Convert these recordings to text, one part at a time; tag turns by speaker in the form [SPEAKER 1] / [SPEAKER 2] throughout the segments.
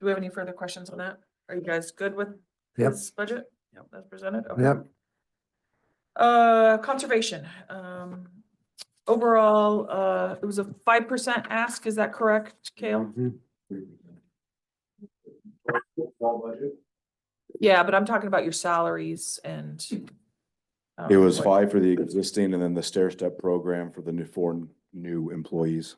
[SPEAKER 1] Do we have any further questions on that? Are you guys good with
[SPEAKER 2] Yep.
[SPEAKER 1] his budget? Yep, that's presented. Okay.
[SPEAKER 2] Yep.
[SPEAKER 1] Uh, conservation, um, overall, uh, it was a five percent ask, is that correct, Kale? Yeah, but I'm talking about your salaries and. um,
[SPEAKER 3] It was
[SPEAKER 1] what-
[SPEAKER 3] five for the existing and then the stair step program for the new, four new employees.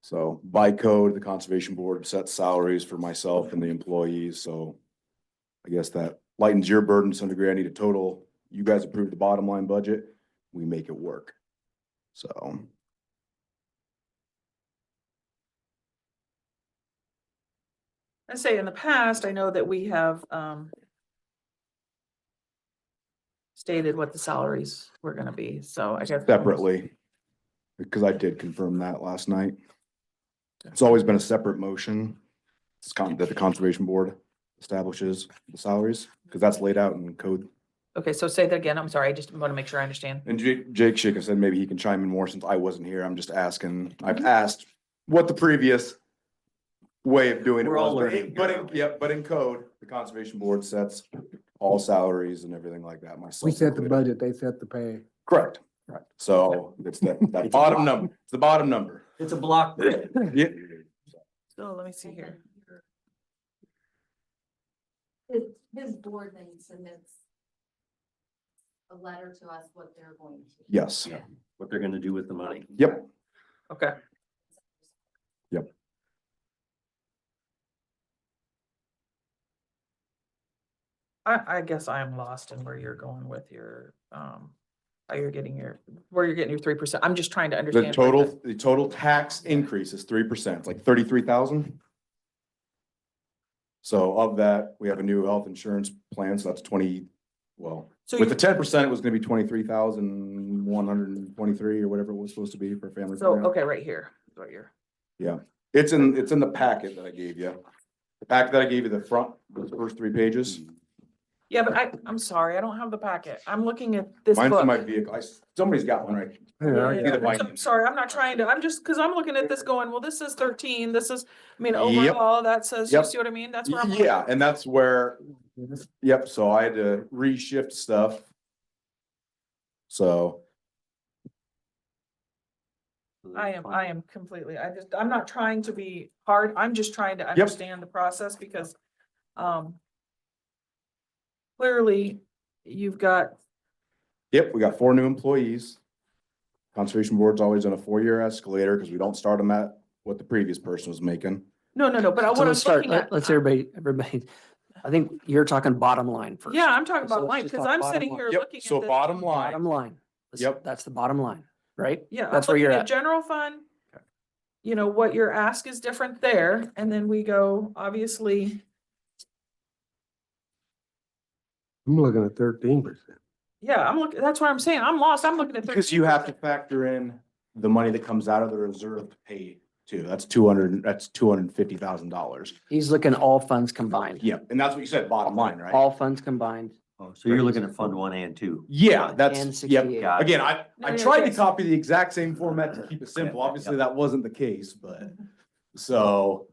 [SPEAKER 3] So by code, the conservation board sets salaries for myself and the employees, so I guess that lightens your burden to some degree. I need a total. You guys approve the bottom line budget, we make it work. So
[SPEAKER 1] I say in the past, I know that we have, um. Stated what the salaries were gonna be, so I guess.
[SPEAKER 3] separately, because I did confirm that last night. It's always been a separate motion. It's con, that the conservation board establishes the salaries, because that's laid out in code.
[SPEAKER 1] Okay, so say that again, I'm sorry, I just wanna make sure I understand.
[SPEAKER 3] And Jake, Jake Schick said maybe he can chime in more since I wasn't here. I'm just asking,
[SPEAKER 4] Mm-hmm.
[SPEAKER 3] I've asked what the previous way of doing it
[SPEAKER 4] We're all
[SPEAKER 3] was, but
[SPEAKER 4] learning,
[SPEAKER 3] in- but in,
[SPEAKER 4] yeah.
[SPEAKER 3] yeah, but in code, the conservation board sets all salaries and everything like that myself.
[SPEAKER 2] We set the
[SPEAKER 3] included.
[SPEAKER 2] budget, they set the pay.
[SPEAKER 3] Correct, right. So it's that, that
[SPEAKER 4] It's a
[SPEAKER 3] bottom
[SPEAKER 4] lot.
[SPEAKER 3] number, it's the bottom number.
[SPEAKER 4] It's a block. grant.
[SPEAKER 3] Yeah,
[SPEAKER 1] So let me see here.
[SPEAKER 5] His, his board then submits a letter to us what they're going to.
[SPEAKER 3] yes.
[SPEAKER 4] What they're gonna do with the money.
[SPEAKER 3] Yep.
[SPEAKER 1] Okay, I, I guess I am lost in where you're going with your, um, how you're getting your, where you're getting your three percent. I'm just trying to understand.
[SPEAKER 3] The
[SPEAKER 1] where
[SPEAKER 3] total, the total tax increase is three percent, like thirty-three thousand. So of that, we have a new health insurance plan, so that's twenty, well,
[SPEAKER 1] So
[SPEAKER 3] with
[SPEAKER 1] you,
[SPEAKER 3] the ten percent, it was gonna be twenty-three thousand one hundred and twenty-three or whatever it was supposed to be for family.
[SPEAKER 1] so,
[SPEAKER 3] plan.
[SPEAKER 1] okay, right here, is what you're,
[SPEAKER 3] It's in, it's in the packet that I gave you. The packet that I gave you, the front, those first three pages.
[SPEAKER 1] yeah, but I, I'm sorry, I don't have the packet. I'm looking at this
[SPEAKER 3] Mine's in my
[SPEAKER 1] book.
[SPEAKER 3] vehicle. I, s- somebody's got one right.
[SPEAKER 2] Yeah, I
[SPEAKER 1] Yeah,
[SPEAKER 3] see the
[SPEAKER 2] got it.
[SPEAKER 3] binding.
[SPEAKER 1] I'm sorry, I'm not trying to, I'm just, cause I'm looking at this going, well, this is thirteen, this is, I mean,
[SPEAKER 3] Yep.
[SPEAKER 1] overall, that says, you
[SPEAKER 3] Yep.
[SPEAKER 1] see what I mean? That's where I'm. looking.
[SPEAKER 3] Yeah, and that's where Yep, so I had to reshift stuff. So,
[SPEAKER 1] I am, I am completely, I just, I'm not trying to be hard, I'm just trying to understand the process because, um. Clearly, you've got,
[SPEAKER 3] yep, we got four new employees. Conservation Board's always on a four-year escalator because we don't start them at what the previous person was making.
[SPEAKER 1] no, no, no, but I
[SPEAKER 6] So
[SPEAKER 1] what I
[SPEAKER 6] let's
[SPEAKER 1] was
[SPEAKER 6] start,
[SPEAKER 1] looking
[SPEAKER 6] let-
[SPEAKER 1] at.
[SPEAKER 6] let's everybody, everybody, I think you're talking bottom line first.
[SPEAKER 1] Yeah, I'm talking
[SPEAKER 6] So
[SPEAKER 1] about
[SPEAKER 6] let's
[SPEAKER 1] mine,
[SPEAKER 6] just
[SPEAKER 1] because
[SPEAKER 6] talk
[SPEAKER 1] I'm
[SPEAKER 6] bottom
[SPEAKER 1] sitting
[SPEAKER 6] line.
[SPEAKER 1] here looking
[SPEAKER 3] Yep,
[SPEAKER 1] at
[SPEAKER 3] so
[SPEAKER 1] this-
[SPEAKER 3] bottom
[SPEAKER 6] Bottom
[SPEAKER 3] line,
[SPEAKER 6] line. Let's-
[SPEAKER 3] Yep.
[SPEAKER 6] That's the bottom line, right?
[SPEAKER 1] Yeah. I'm
[SPEAKER 6] That's where
[SPEAKER 1] looking
[SPEAKER 6] you're
[SPEAKER 1] at
[SPEAKER 6] at.
[SPEAKER 1] General fund. You know, what your ask is different there, and then we go, obviously,
[SPEAKER 2] I'm looking at thirteen percent.
[SPEAKER 1] yeah, I'm looking, that's what I'm saying, I'm lost, I'm looking at.
[SPEAKER 3] because you have to
[SPEAKER 1] 13%.
[SPEAKER 3] factor in the money that comes out of the reserve to pay too. That's two hundred, that's two hundred and fifty thousand dollars.
[SPEAKER 6] He's looking all funds combined.
[SPEAKER 3] Yep, and that's what you said, bottom line, right?
[SPEAKER 6] All funds combined.
[SPEAKER 4] Oh, So you're looking at fund one and two.
[SPEAKER 3] Yeah,
[SPEAKER 6] and
[SPEAKER 3] that's, yep.
[SPEAKER 6] 68.
[SPEAKER 4] Got it.
[SPEAKER 3] Again, I,
[SPEAKER 1] No,
[SPEAKER 3] I
[SPEAKER 1] no,
[SPEAKER 3] tried to
[SPEAKER 1] yes.
[SPEAKER 3] copy the exact same format to keep it simple. Obviously, that wasn't the case, but, so.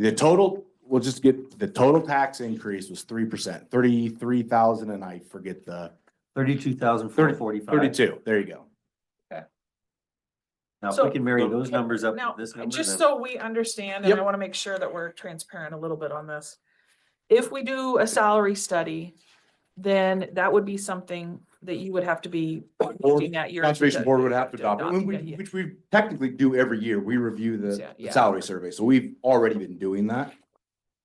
[SPEAKER 3] The total, we'll just get, the total tax increase was three percent, thirty-three thousand, and I forget the
[SPEAKER 4] Thirty-two thousand four forty-five.
[SPEAKER 3] thirty-two, there you go.
[SPEAKER 4] Now, if
[SPEAKER 1] So-
[SPEAKER 4] we can marry those numbers up
[SPEAKER 1] Now,
[SPEAKER 4] with this number.
[SPEAKER 1] Just
[SPEAKER 4] then-
[SPEAKER 1] so we understand, and I
[SPEAKER 3] Yep.
[SPEAKER 1] want to make sure that we're transparent a little bit on this. If we do a salary study, then that would be something that you would have to be looking at your.
[SPEAKER 3] Conservation Board would have to adopt, it,
[SPEAKER 1] yeah,
[SPEAKER 3] we-
[SPEAKER 1] yeah.
[SPEAKER 3] which we technically do every year. We review the
[SPEAKER 1] Yeah, yeah.
[SPEAKER 3] salary survey, so we've already been doing that.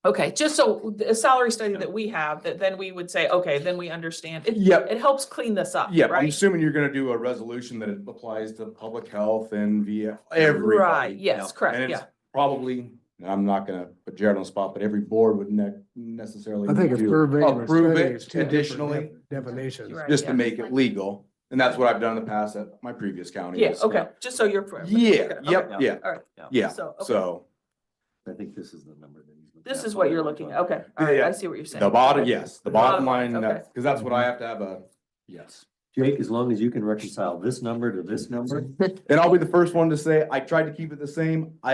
[SPEAKER 1] Okay, just so the salary study that we have, that then we would say, okay, then we understand. It,
[SPEAKER 3] Yep,
[SPEAKER 1] it helps clean this up,
[SPEAKER 3] Yeah, I'm
[SPEAKER 1] right?
[SPEAKER 3] assuming you're gonna do a resolution that it applies to public health and via everybody.
[SPEAKER 1] Right, yes,
[SPEAKER 4] yeah.
[SPEAKER 1] correct,
[SPEAKER 3] And
[SPEAKER 1] yeah.
[SPEAKER 3] it's probably, and I'm not gonna put Jared on the spot, but every board would ne- necessarily.
[SPEAKER 2] I think a
[SPEAKER 3] do-
[SPEAKER 2] survey. and a
[SPEAKER 3] Approve
[SPEAKER 2] study
[SPEAKER 3] it
[SPEAKER 2] is two different
[SPEAKER 3] additionally.
[SPEAKER 2] def- Definitions.
[SPEAKER 1] Right.
[SPEAKER 3] Just
[SPEAKER 1] yeah.
[SPEAKER 3] to make it legal, and that's what I've done in the past at my previous county.
[SPEAKER 1] Yeah,
[SPEAKER 3] is- uh,
[SPEAKER 1] okay, just so you're.
[SPEAKER 3] Yeah,
[SPEAKER 1] okay,
[SPEAKER 3] yep, yeah,
[SPEAKER 1] All right.
[SPEAKER 3] yeah,
[SPEAKER 1] So, okay,
[SPEAKER 3] so,
[SPEAKER 4] I think this is the number. that he's looking
[SPEAKER 1] this
[SPEAKER 4] at.
[SPEAKER 1] is what you're looking at, okay, all
[SPEAKER 3] Yeah,
[SPEAKER 1] right,
[SPEAKER 3] yeah.
[SPEAKER 1] I see what you're saying. Oh,
[SPEAKER 3] the bottom, yes, the
[SPEAKER 1] Bottom
[SPEAKER 3] bottom
[SPEAKER 1] line,
[SPEAKER 2] Mm-hmm.
[SPEAKER 3] line, that's, because that's what I have to have a, yes.
[SPEAKER 4] Jake, as long as you can reconcile this number to this number.
[SPEAKER 3] And I'll be the first one to say, I tried to keep it the same. I